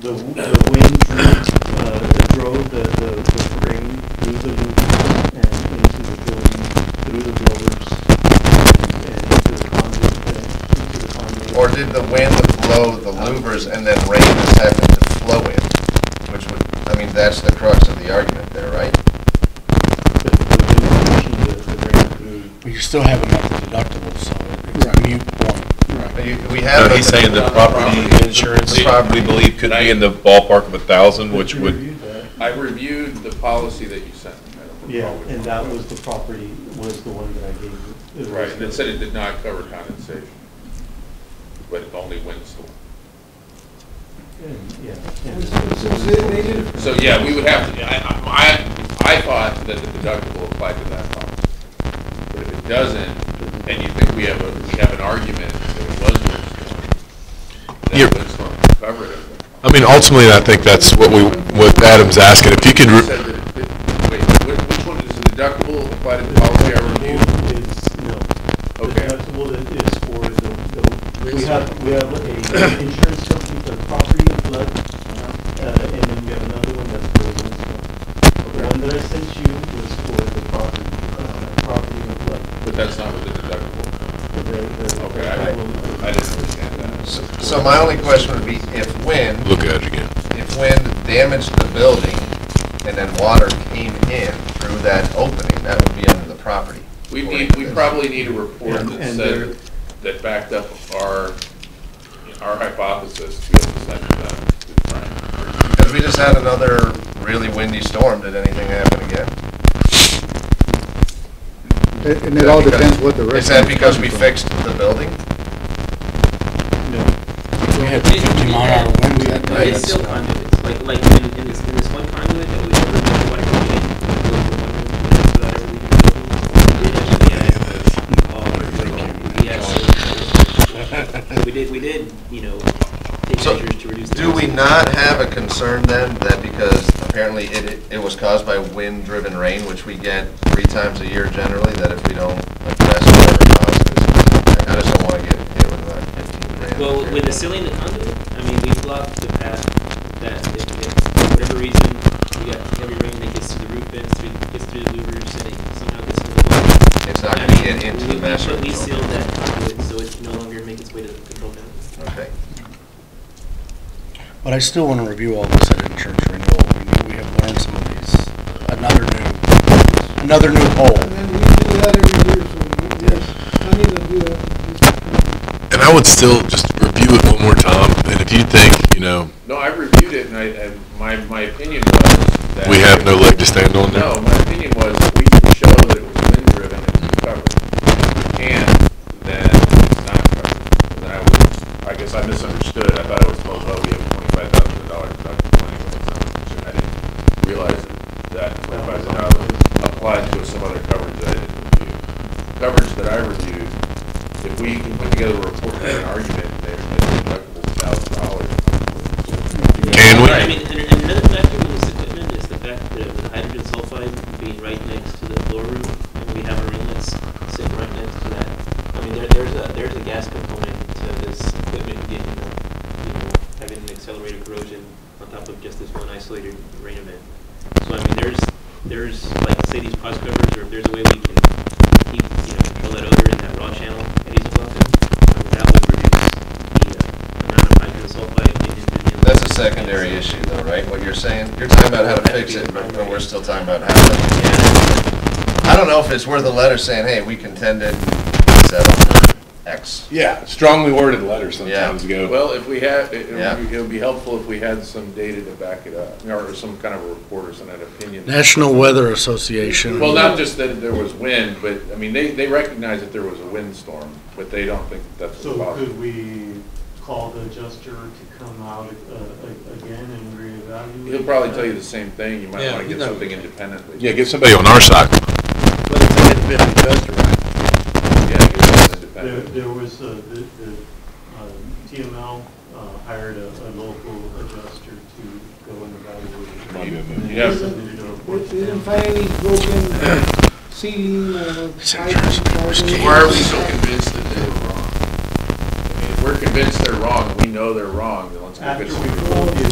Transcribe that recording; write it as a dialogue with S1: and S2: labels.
S1: the, the wind drew, uh, drove the, the, the frame through the loop and into the building, through the builders, and and into the conduit, uh, into the conduit.
S2: Or did the wind blow the louvers and then rain has happened to flow in? Which would, I mean, that's the crux of the argument there, right?
S1: The, the wind pushing the, the rain through.
S3: But you still have enough deductible, so it's
S1: Right.
S3: mute one.
S2: But you- We have.
S4: So he's saying the property insurance,
S2: The property.
S4: we believe could be in the ballpark of a thousand, which
S1: You
S4: would,
S1: reviewed that.
S5: I reviewed the policy that you sent. I don't recall
S1: Yeah,
S5: which
S1: and
S5: one
S1: that
S5: it
S1: was the property, was the one that I gave you. It
S5: Right,
S1: was
S5: and it
S1: the-
S5: said it did not cover condensation, but it only windstorm.
S1: and- Yeah. and-
S5: So, yeah, we would have to, I, I, I thought that the deductible applied to that policy. But if it doesn't, and you think we have a, we have an argument that it was windstorm,
S4: You're-
S5: then windstorm would cover it.
S4: I mean, ultimately, I think that's what we, what Adam's asking, if you could,
S5: You
S4: re-
S5: said that it- that- Wait, whi- which one, is the deductible apply to the policy I reviewed?
S1: It's, no.
S5: Okay.
S1: The deductible that is for the, the, we have, we have a insurance company for property and flood, uh, and then we have another one that's for the windstorm. The one that I sent you was for the property, uh, property and flood.
S5: But that's not what the deductible.
S1: The- the-
S5: Okay, I, I didn't understand that.
S2: So so my only question would be if wind
S4: look at it again.
S2: if wind damaged the building and then water came in through that opening, that would be under the property.
S5: We need, we probably need a report
S1: And-
S5: that
S1: and
S5: said,
S1: there-
S5: that backed up our, our hypothesis to be able to send it back to Frank.
S2: Because we just had another really windy storm, did anything happen again?
S6: It- And it all depends what the risk.
S2: Is that because we fixed the building?
S1: No.
S3: We had fifty mile an hour winds that day.
S7: It's still conduits, like, like in, in this, in this one conduit that we ever, did, like, we did, we built the one conduit without ever leaving the building. We did actually have, um, we actually- We did, we did, you know, take
S2: So,
S7: measures to reduce the.
S2: Do we
S7: risk.
S2: not have a concern then that because apparently it, it was caused by wind-driven rain, which we get three times a year generally, that if we don't address whatever caused this, I just don't want to get hit with like fifteen grand.
S7: Well, with the sealing the conduit, I mean, we blocked the path that if, if, for whatever reason, you got heavy rain that gets to the roof vents, through, gets through the louvers, and it somehow gets to the block.
S2: It's not
S7: I
S2: gonna
S7: mean,
S2: get into
S7: we-
S2: the master.
S7: We we sealed that conduit, so it can no longer make its way to the control panel.
S2: Okay.
S3: But I still want to review all this at insurance renewal. We know we have learned some of these. Another new, another new
S8: And
S3: hole.
S8: then we do that every year, so we- there's money to do that.
S4: And I would still just review it one more time, and if you think, you know,
S5: No, I reviewed it and I, and my, my opinion was that.
S4: we have no leg to stand on now.
S5: No, my opinion was that we can show that it was wind driven and it's covered. If we can't, then it's not covered. And then I was, I guess I misunderstood. I thought I was told, well, we have twenty-five thousand dollar deductible anyway. it's not covered. I didn't realize that that twenty-five thousand dollars applied to some other coverage that I didn't review. Coverage that I reviewed, if we can put together a report and an argument, there's a deductible thousand dollars.
S4: Can we?
S7: I mean, and and another factor with this equipment is the fact that with the hydrogen sulfide being right next to the floor room, and we have our inlets sitting right next to that. I mean, there, there's a, there's a gas component to this equipment getting, you know, having an accelerated corrosion on top of just this one isolated rain event. So I mean, there's, there's, like, say these cross covers, or if there's a way we can keep, you know, control that odor in that raw channel at Hazelbluff, I mean, that would reduce the uh, amount of hydrogen sulfide getting into the inlet.
S2: That's a secondary issue though, right? What you're saying, you're talking about how to fix it, but but we're still talking about how to. I don't know if it's worth a letter saying, hey, we contended, settled for X.
S4: Yeah, strongly worded letters
S2: sometimes
S4: go.
S5: Well, if we had, it
S2: Yeah.
S5: it would be- it would be helpful if we had some data to back it up, or some kind of a report or some kind of opinion.
S3: National Weather Association.
S5: Well, not just that there was wind, but, I mean, they, they recognize that there was a windstorm, but they don't think that's a
S1: So could
S5: problem.
S1: we call the adjuster to come out uh, a- again and reevaluate?
S5: He'll probably tell you the same thing, you might
S3: Yeah,
S5: want to
S3: he's
S5: get
S3: not-
S5: something independely.
S4: Yeah, get somebody on our side.
S3: But it's an independent investor, right?
S5: Yeah, get something
S1: There,
S5: independent.
S1: there was, uh, the, the, um, TML, uh, hired a, a local adjuster to go and evaluate. it. And
S5: Yeah.
S1: they submitted a report
S8: But
S1: to
S8: They didn't
S1: them.
S8: find any broken ceiling or pipes. or-
S5: Why are we so convinced that they were wrong? I mean, if we're convinced they're wrong, we know they're wrong, then let's go
S1: After
S5: get
S1: we
S5: some.
S1: called the